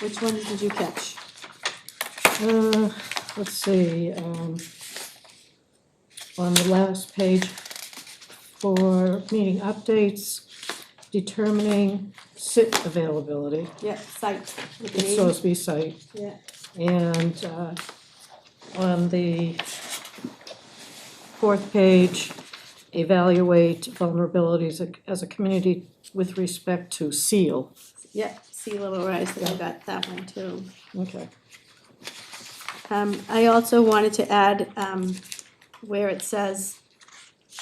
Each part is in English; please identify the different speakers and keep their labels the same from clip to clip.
Speaker 1: Which ones did you catch?
Speaker 2: Uh, let's see, um, on the last page for meeting updates, determining sit availability,
Speaker 1: Yeah, site, with the
Speaker 2: it's
Speaker 1: name,
Speaker 2: supposed to be site.
Speaker 1: yeah,
Speaker 2: And uh, on the fourth page, evaluate vulnerabilities as a community with respect to seal.
Speaker 1: yeah, sea level rise, I
Speaker 2: Yeah.
Speaker 1: got that one too.
Speaker 2: Okay.
Speaker 1: Um, I also wanted to add, um, where it says,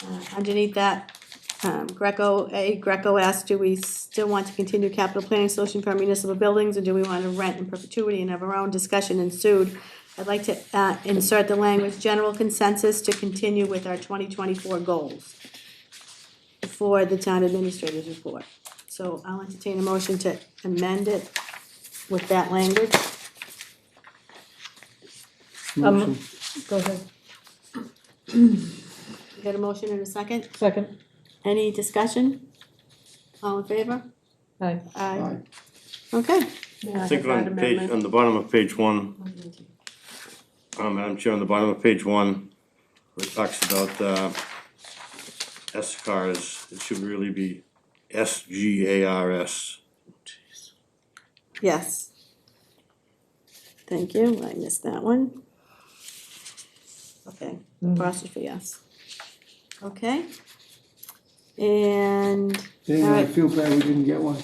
Speaker 1: uh, underneath that, um, Greco, A, Greco asked, do we still want to continue capital planning solution for our municipal buildings, or do we want to rent in perpetuity and have our own discussion ensued? I'd like to, uh, insert the language, general consensus to continue with our twenty twenty-four goals for the town administrator's report. So I'll entertain a motion to amend it with that language.
Speaker 2: Um, Go ahead,
Speaker 1: Got a motion in a second?
Speaker 2: second,
Speaker 1: Any discussion? All in favor?
Speaker 2: aye.
Speaker 1: Aye. Okay.
Speaker 3: I think on page, on the bottom of page one, um, Madam Chair, on the bottom of page one, where it talks about, uh, S cars, it should really be S G A R S.
Speaker 1: Yes. Thank you, I missed that one. Okay, apostrophe yes. Okay. And
Speaker 4: Dang, I
Speaker 1: Alright.
Speaker 4: feel bad we didn't get one.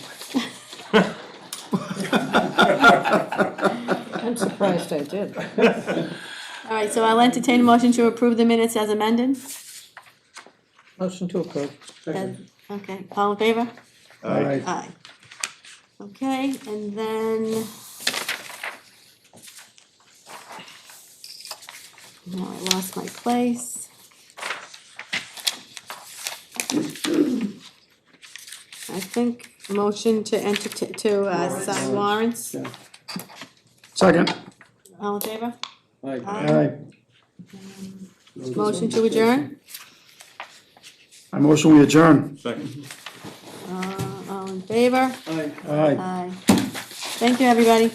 Speaker 2: I'm surprised I did.
Speaker 1: All right, so I'll entertain a motion to approve the minutes as amended.
Speaker 2: Motion to approve.
Speaker 1: As- Okay, all in favor?
Speaker 4: Alright,
Speaker 1: Aye. Okay, and then. Now I lost my place. I think motion to enter, to- to, uh, sign warrants,
Speaker 4: yeah.
Speaker 5: Second.
Speaker 1: all in favor?
Speaker 4: Aye.
Speaker 1: Motion to adjourn,
Speaker 5: I motion we adjourn.
Speaker 3: Second.
Speaker 1: uh, all in favor?
Speaker 4: Aye.
Speaker 1: Aye. Thank you, everybody.